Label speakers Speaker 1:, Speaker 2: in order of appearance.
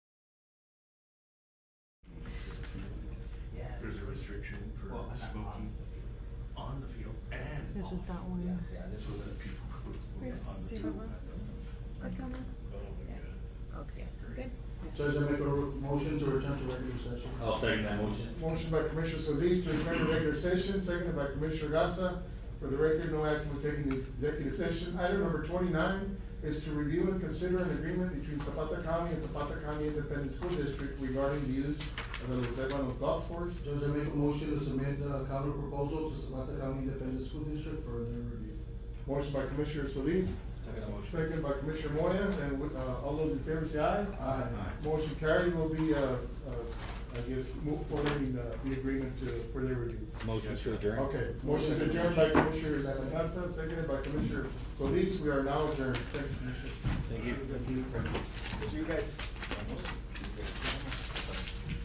Speaker 1: smoking on the field and
Speaker 2: Isn't
Speaker 1: off.
Speaker 2: that one-
Speaker 1: Yeah, yeah, this was the people who were smoking
Speaker 3: Where's
Speaker 1: on the
Speaker 3: Sue?
Speaker 1: field.
Speaker 3: Click on
Speaker 1: That'll be
Speaker 3: Yeah.
Speaker 1: good.
Speaker 3: that. Okay, good.
Speaker 4: So does that make a motion to return to regular session?
Speaker 5: I'll second that motion.
Speaker 6: Motion by Commissioner Solis to return to regular session, seconded by Commissioner Gasa. For the record, no action was taken in executive session. Item number twenty-nine is to review and consider an agreement between Zapata County and Zapata County Independent School District regarding the use of the Los Ebanos golf course.
Speaker 4: Does that make a motion to submit the counter proposal to Zapata County Independent School District for their review?
Speaker 6: Motion by Commissioner Solis,
Speaker 1: Second motion.
Speaker 6: seconded by Commissioner Moya, and with, uh, all those in favor say aye.
Speaker 1: Aye.
Speaker 6: Motion carried will be, uh, uh, I guess, move forward in, uh, the agreement to, for their review.
Speaker 7: Motion to adjourn.
Speaker 6: Okay, motion to adjourn by Commissioner Gatsa, seconded by Commissioner Solis, we are now adjourned, thank you, Commissioner.
Speaker 7: Thank you.
Speaker 4: Thank you.
Speaker 6: See you guys.
Speaker 1: Almost.